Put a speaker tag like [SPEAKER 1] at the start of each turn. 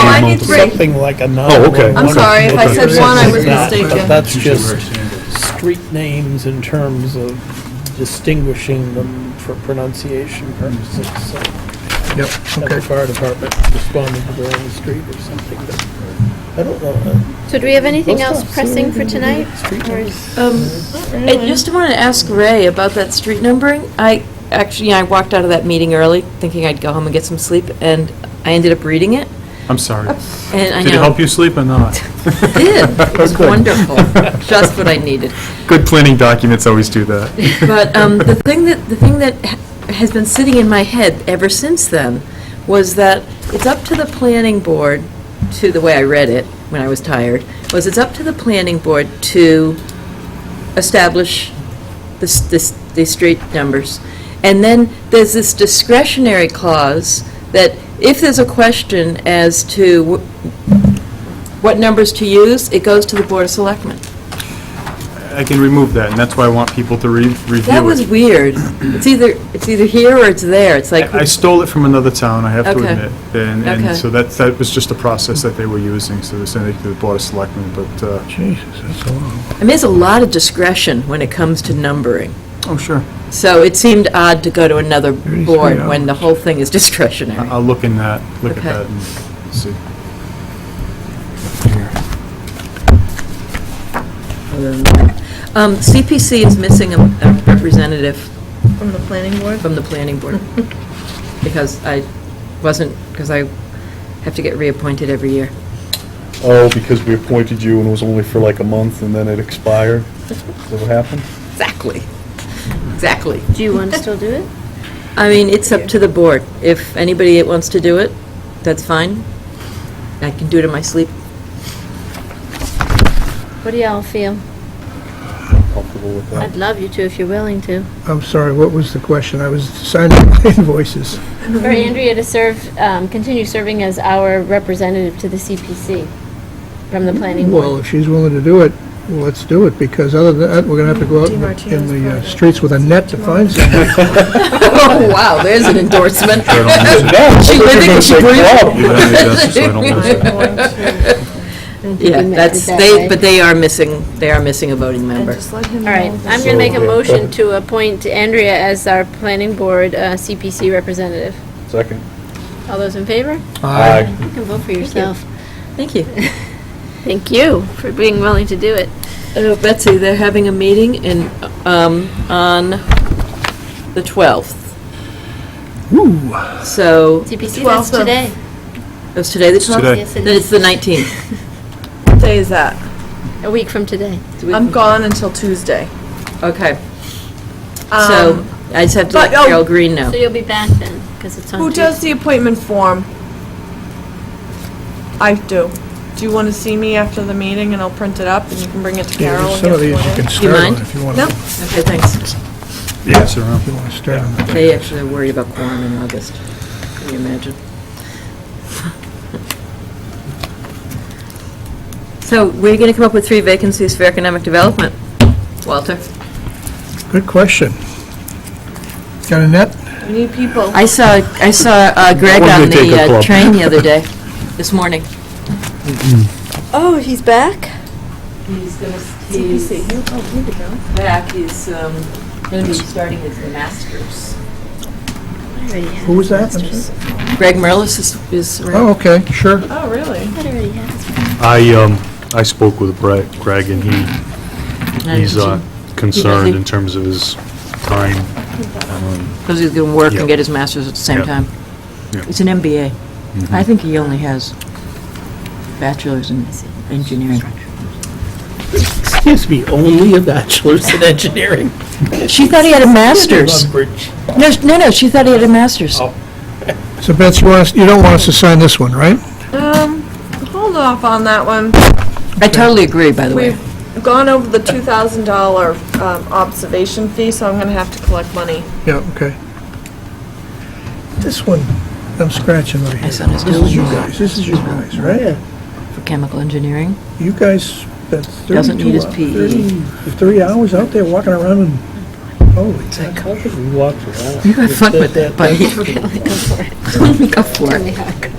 [SPEAKER 1] Oh,
[SPEAKER 2] It's something like a nine.
[SPEAKER 3] okay.
[SPEAKER 1] I'm sorry, if I said one, I was mistaken.
[SPEAKER 2] But that's just street names in terms of distinguishing them for pronunciation purposes. So
[SPEAKER 4] Yep,
[SPEAKER 2] that the
[SPEAKER 4] okay.
[SPEAKER 2] fire department responded to their own street or something, but I don't know.
[SPEAKER 5] So do we have anything
[SPEAKER 2] Let's
[SPEAKER 5] else
[SPEAKER 2] not say
[SPEAKER 5] pressing for
[SPEAKER 2] anything
[SPEAKER 5] tonight?
[SPEAKER 2] about street
[SPEAKER 5] Or
[SPEAKER 2] names.
[SPEAKER 5] is-
[SPEAKER 1] Um, I just wanted to ask Ray about that street numbering. I, actually, I walked out of that meeting early, thinking I'd go home and get some sleep, and I ended up reading it,
[SPEAKER 3] I'm sorry.
[SPEAKER 1] and I know.
[SPEAKER 3] Did it help you sleep or not? Oh,
[SPEAKER 1] It did. It was
[SPEAKER 3] Good.
[SPEAKER 1] wonderful. Just what I needed.
[SPEAKER 3] Good planning documents always do that.
[SPEAKER 1] But um, the thing that, the thing that ha- has been sitting in my head ever since then was that it's up to the planning board, to the way I read it when I was tired, was it's up to the planning board to establish this, this, these street numbers. And then there's this discretionary clause that if there's a question as to wh- what numbers to use, it goes to the Board of Selectmen.
[SPEAKER 3] I can remove that, and that's why I want people to re- review it.
[SPEAKER 1] That was weird. It's either, it's either here or it's there. It's like,
[SPEAKER 3] I I stole it from another town, I have to
[SPEAKER 1] Okay.
[SPEAKER 3] admit. And,
[SPEAKER 1] Okay.
[SPEAKER 3] and so that, that was just a process that they were using, so they sent it to the Board of Selectmen, but, uh,
[SPEAKER 4] Jesus, that's a long.
[SPEAKER 1] I mean, there's a lot of discretion when it comes to numbering.
[SPEAKER 3] oh, sure.
[SPEAKER 1] So it seemed odd to go to another
[SPEAKER 4] 33
[SPEAKER 1] board when the whole thing is discretionary.
[SPEAKER 3] I- I'll look in that, look at
[SPEAKER 1] Okay.
[SPEAKER 3] that and see.
[SPEAKER 1] Other than that. Um, CPC is missing a a representative
[SPEAKER 6] From the planning board?
[SPEAKER 4] Oh,
[SPEAKER 1] from the planning board because I wasn't, because I have to get reappointed every year.
[SPEAKER 7] Oh, because we appointed you and it was only for like a month and then it expired? Is that what happened?
[SPEAKER 1] Exactly. Exactly.
[SPEAKER 5] Do you want to still do it?
[SPEAKER 1] I mean, it's up to the board. If anybody that wants to do it, that's fine. I can do it in my sleep.
[SPEAKER 5] What do y'all feel?
[SPEAKER 7] Comfortable with that?
[SPEAKER 5] I'd love you to if you're willing to.
[SPEAKER 4] I'm sorry, what was the question? I was signing my invoices.
[SPEAKER 5] For Andrea to serve, um, continue serving as our representative to the CPC from the planning board.
[SPEAKER 4] Well, if she's willing to do it, well, let's do it, because other than that, we're gonna have to go out in the- in the uh, streets with a net to find somebody.
[SPEAKER 1] Oh, wow, there's an endorsement.
[SPEAKER 3] I don't use it.
[SPEAKER 1] She lived it, she breathed it.
[SPEAKER 3] Even I use that, so I don't use it.
[SPEAKER 1] Yeah, that's, they, but they are missing, they are missing a voting member.
[SPEAKER 5] All right, I'm going to make a motion to appoint Andrea as our planning board uh, CPC representative.
[SPEAKER 7] Second.
[SPEAKER 5] All those in favor?
[SPEAKER 7] Aye.
[SPEAKER 5] You can vote for yourself.
[SPEAKER 1] Thank you.
[SPEAKER 5] Thank you for being willing to do it.
[SPEAKER 1] Uh, Betsy, they're having a meeting in, um, on the 12th. Ooh. So,
[SPEAKER 5] CPC, that's today.
[SPEAKER 1] it's today the 12th?
[SPEAKER 3] today.
[SPEAKER 5] Yes, it
[SPEAKER 1] Then it's
[SPEAKER 5] is.
[SPEAKER 1] the 19th.
[SPEAKER 8] What day is that?
[SPEAKER 5] A week from today.
[SPEAKER 8] I'm gone until Tuesday.
[SPEAKER 1] Okay, so
[SPEAKER 8] Um,
[SPEAKER 1] I just have to let
[SPEAKER 8] but, oh,
[SPEAKER 1] Carol Green know.
[SPEAKER 5] So you'll be back then, because it's on
[SPEAKER 8] Who
[SPEAKER 5] Tuesday.
[SPEAKER 8] does the appointment form? I do. Do you want to see me after the meeting and I'll print it up and you can bring it to
[SPEAKER 4] Yeah,
[SPEAKER 8] Carol?
[SPEAKER 4] there's
[SPEAKER 8] and
[SPEAKER 4] some
[SPEAKER 8] get
[SPEAKER 4] of these you
[SPEAKER 8] it?
[SPEAKER 4] can start on
[SPEAKER 1] mind?
[SPEAKER 4] if you want
[SPEAKER 8] No?
[SPEAKER 4] to.
[SPEAKER 1] Okay, thanks.
[SPEAKER 3] Pass it around.
[SPEAKER 4] If you want to start on that.
[SPEAKER 1] They actually are worried about quorum in August, can you imagine? So we're going to come up with three vacancies for economic development. Walter?
[SPEAKER 4] Good question. Got a net?
[SPEAKER 8] We need people.
[SPEAKER 1] I saw, I saw uh, Greg
[SPEAKER 3] One
[SPEAKER 1] on
[SPEAKER 3] day take
[SPEAKER 1] the
[SPEAKER 3] a
[SPEAKER 1] uh,
[SPEAKER 3] club.
[SPEAKER 1] train the other day, this morning.
[SPEAKER 8] Oh, he's back?
[SPEAKER 1] He's going to, he's
[SPEAKER 8] Oh,
[SPEAKER 1] back, he's going to be starting his master's.
[SPEAKER 5] I already have
[SPEAKER 4] Who was that? I'm
[SPEAKER 5] masters.
[SPEAKER 1] Greg Merlis is, is
[SPEAKER 4] Oh,
[SPEAKER 1] around.
[SPEAKER 4] okay, sure.
[SPEAKER 8] Oh, really?
[SPEAKER 5] I already have.
[SPEAKER 3] I, um, I spoke with Brett, Greg, and he, he's uh, concerned in terms of his time. Um,
[SPEAKER 1] Because he's going to work
[SPEAKER 3] Yeah.
[SPEAKER 1] and get his master's at the same
[SPEAKER 3] Yeah.
[SPEAKER 1] time.
[SPEAKER 3] Yeah.
[SPEAKER 1] It's an MBA. I think he only has bachelor's in engineering.
[SPEAKER 2] Excuse me, only a bachelor's in engineering.
[SPEAKER 1] She thought he had a master's.
[SPEAKER 2] Leverage.
[SPEAKER 1] No, sh- no, no, she thought he had a master's.
[SPEAKER 2] Oh.
[SPEAKER 4] So Betsy, you want us, you don't want us to sign this one, right?
[SPEAKER 8] Um, hold off on that one.
[SPEAKER 1] I totally agree, by the way.
[SPEAKER 8] We've gone over the $2,000 um, observation fee, so I'm going to have to collect money.
[SPEAKER 4] Yeah, okay. This one, I'm scratching right
[SPEAKER 1] My
[SPEAKER 4] here.
[SPEAKER 1] son is
[SPEAKER 4] This is you
[SPEAKER 1] doing
[SPEAKER 4] guys, this is you guys, right?
[SPEAKER 1] for chemical engineering.
[SPEAKER 4] You guys spent 32
[SPEAKER 1] Doesn't need his E.
[SPEAKER 4] hou-
[SPEAKER 1] PE.
[SPEAKER 4] 30 Three hours out there walking around and, holy cow.
[SPEAKER 2] How could we walk around?
[SPEAKER 1] You got fun
[SPEAKER 2] That-
[SPEAKER 1] with
[SPEAKER 2] that-
[SPEAKER 1] it, buddy. Go for it. Go for it.